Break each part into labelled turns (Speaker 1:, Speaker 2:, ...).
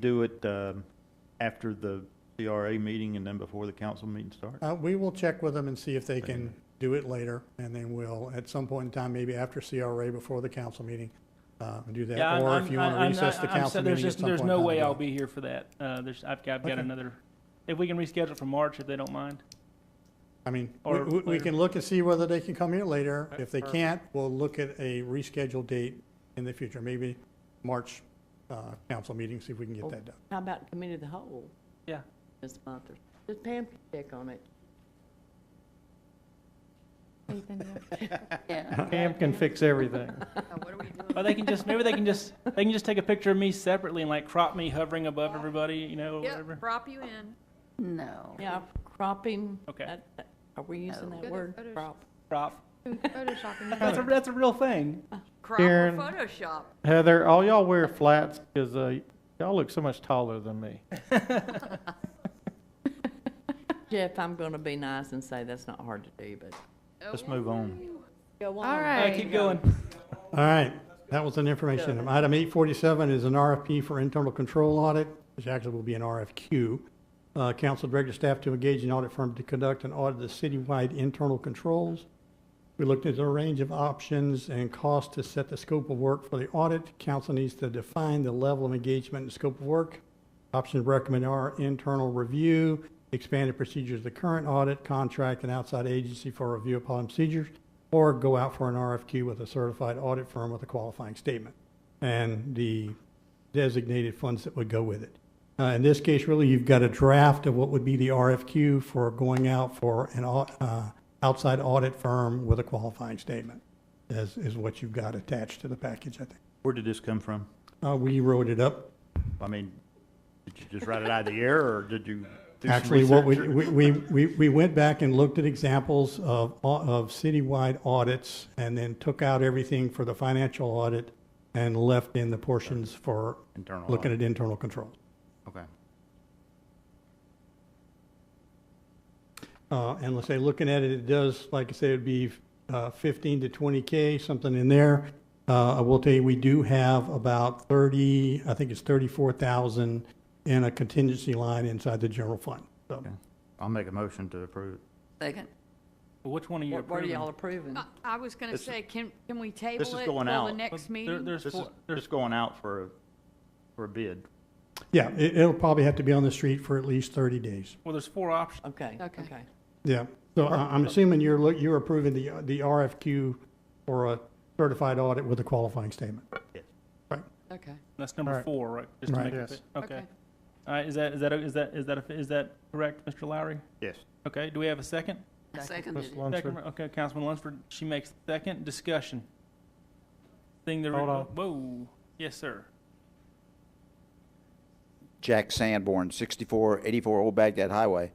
Speaker 1: do it um, after the CRA meeting and then before the council meeting starts?
Speaker 2: Uh, we will check with them and see if they can do it later, and then we'll, at some point in time, maybe after CRA, before the council meeting, uh, do
Speaker 3: Yeah,
Speaker 2: that,
Speaker 3: I'm-
Speaker 2: or
Speaker 3: I'm-
Speaker 2: if you want to
Speaker 3: I'm
Speaker 2: recess
Speaker 3: not-
Speaker 2: the
Speaker 3: I'm
Speaker 2: council
Speaker 3: said there's
Speaker 2: meeting at
Speaker 3: just-
Speaker 2: some point.
Speaker 3: There's no
Speaker 2: in
Speaker 3: way
Speaker 2: time,
Speaker 3: I'll
Speaker 2: we'll do
Speaker 3: be here for that. Uh, there's, I've got, I've got
Speaker 2: Okay.
Speaker 3: another, if we can reschedule for March, if they don't mind.
Speaker 2: it. I mean, we,
Speaker 3: or
Speaker 2: we- we
Speaker 3: later.
Speaker 2: can look and see whether they can come here later.
Speaker 3: Okay,
Speaker 2: If they
Speaker 3: perfect.
Speaker 2: can't, we'll look at a rescheduled date in the future, maybe March, uh, council meeting, see if we can get
Speaker 3: Cool.
Speaker 2: that done.
Speaker 4: How about committee of the whole?
Speaker 3: Yeah.
Speaker 4: This month, or, just Pam can check on it. Yeah.
Speaker 5: Pam can fix everything.
Speaker 6: Uh,
Speaker 3: Or they can just, maybe they can just, they can just take a picture of me separately and like crop me hovering above everybody, you know, or
Speaker 6: Yep,
Speaker 3: whatever.
Speaker 6: prop you in.
Speaker 7: No.
Speaker 4: Yeah, cropping.
Speaker 3: Okay.
Speaker 4: that- that- Are we using
Speaker 7: No.
Speaker 4: that word,
Speaker 6: Photoshop.
Speaker 4: crop?
Speaker 3: Crop.
Speaker 6: Photoshopping.
Speaker 3: That's a, that's a real thing.
Speaker 6: Crop or
Speaker 5: Karen.
Speaker 6: Photoshop.
Speaker 5: Heather, all y'all wear flats because, uh, y'all look so much taller than me.
Speaker 4: Jeff, I'm gonna be nice and say that's not hard to do, but.
Speaker 1: Let's move on.
Speaker 4: Go
Speaker 7: All
Speaker 3: All right,
Speaker 7: right.
Speaker 3: keep going.
Speaker 2: All right, that was an information item. Item eight forty-seven is an RFP for internal control audit, which actually will be an RFQ. Uh, council directed staff to engage an audit firm to conduct an audit of citywide internal controls. We looked at a range of options and costs to set the scope of work for the audit. Council needs to define the level of engagement and scope of work. Options recommended are internal review, expanded procedures, of the current audit, contract an outside agency for review upon procedures, or go out for an RFQ with a certified audit firm with a qualifying statement and the designated funds that would go with it. Uh, in this case, really, you've got a draft of what would be the RFQ for going out for an au- uh, outside audit firm with a qualifying statement, is, is what you've got attached to the package, I think.
Speaker 1: Where did this come from?
Speaker 2: Uh, we wrote it up
Speaker 1: I mean, did you just write it out of the air, or did you do some
Speaker 2: Actually, what we,
Speaker 1: research?
Speaker 2: we, we, we we went back and looked at examples of, au- of citywide audits and then took out everything for the financial audit and left in the portions for
Speaker 1: Internal
Speaker 2: looking
Speaker 1: audit.
Speaker 2: at internal control.
Speaker 1: Okay.
Speaker 2: Uh, and let's say, looking at it, it does, like I say, it'd be, uh, fifteen to twenty K, something in there. Uh, I will tell you, we do have about thirty, I think it's thirty-four thousand in a contingency line inside the general fund, so.
Speaker 1: Okay. I'll make a motion to approve it.
Speaker 7: Second.
Speaker 3: Which one are you
Speaker 4: What what are y'all
Speaker 3: approving?
Speaker 4: approving?
Speaker 6: I- I was gonna
Speaker 1: This is-
Speaker 6: say, can, can we table
Speaker 1: is
Speaker 6: it till
Speaker 1: going
Speaker 6: the
Speaker 1: out.
Speaker 3: Well,
Speaker 6: next
Speaker 3: there-
Speaker 6: meeting?
Speaker 3: There's
Speaker 1: This is
Speaker 3: four, there's,
Speaker 1: just going out for, a- for a bid.
Speaker 2: Yeah, it, it'll probably have to be on the street for at least thirty days.
Speaker 3: well, there's four options.
Speaker 4: Okay,
Speaker 6: Okay.
Speaker 4: okay.
Speaker 2: Yeah, so I- I'm assuming you're, look- you're approving the, the RFQ for a certified audit with a qualifying statement.
Speaker 4: Okay.
Speaker 3: That's number
Speaker 5: Right.
Speaker 3: four, right? Just to
Speaker 2: Right.
Speaker 3: make it
Speaker 5: Yes.
Speaker 3: fit. Okay. All right, is that, is that, is that, is that, is that correct, Mr. Lowry?
Speaker 1: Yes.
Speaker 3: Okay, do we have a second?
Speaker 7: Seconded
Speaker 5: Ms.
Speaker 7: it.
Speaker 5: Lunsford.
Speaker 3: Second, okay, Councilman Lunsford, she makes second discussion. Thing the.
Speaker 5: Hold on.
Speaker 3: Whoa, yes, sir.
Speaker 8: Jack Sanborn, 6484 Old Baghdad Highway.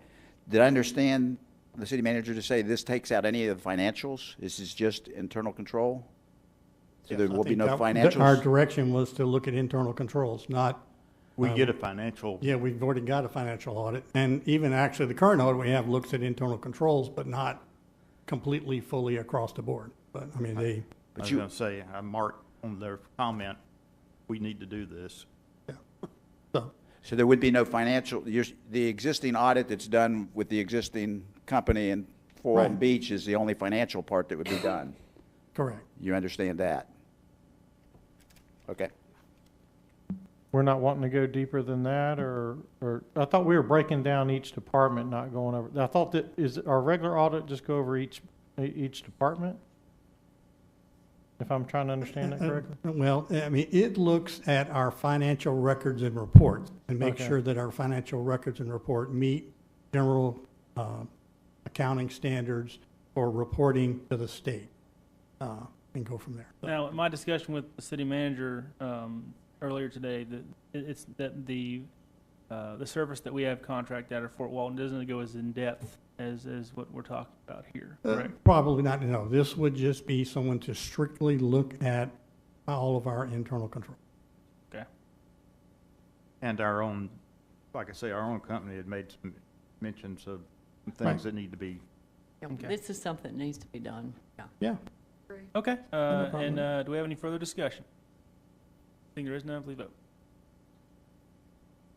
Speaker 8: Did I understand the city manager to say this takes out any of the financials? This is just internal control? So there
Speaker 2: I
Speaker 8: will be
Speaker 2: think
Speaker 8: no
Speaker 2: that- that Our
Speaker 8: financials?
Speaker 2: direction was to look at internal controls, not,
Speaker 1: We
Speaker 2: Um,
Speaker 1: get a financial,
Speaker 2: yeah, we've already got a financial audit. And even actually, the current audit we have looks at internal controls, but not completely, fully across the board. But, I mean, they,
Speaker 1: I was
Speaker 8: you-
Speaker 1: gonna say, I marked on their comment, we need to do this.
Speaker 2: so,
Speaker 8: So there would be no financial, you're- the existing audit that's done with the existing company in Forum
Speaker 2: Right.
Speaker 8: Beach is the only financial part that would be done.
Speaker 2: correct.
Speaker 8: You understand that? Okay.
Speaker 5: We're not wanting to go deeper than that, or, or, I thought we were breaking down each department, not going over, I thought that, is our regular audit just go over each, e- each department? If I'm trying to understand that correctly?
Speaker 2: Uh, Well, I mean, it looks at our financial records and reports and make
Speaker 5: Okay.
Speaker 2: sure that our financial records and report meet general uh, accounting standards for reporting to the state uh, and go from there.
Speaker 3: Now, in my discussion with the city manager um, earlier today, that it- it's that the uh, the service that we have contracted out of Fort Walton doesn't go as in depth as as what we're talking about here.
Speaker 2: Uh,
Speaker 3: Correct.
Speaker 2: Probably not, no. This would just be someone to strictly look at all of our internal control.
Speaker 3: Okay.
Speaker 1: And our own, like I say, our own company had made some mentions of some
Speaker 2: Right.
Speaker 1: things that need to be
Speaker 4: Yeah,
Speaker 3: Okay.
Speaker 4: This is something that needs to be done, yeah.
Speaker 2: Yeah.
Speaker 3: Okay. Uh,
Speaker 2: problem.
Speaker 3: and uh, do we have any further discussion? I think there is none. Please vote.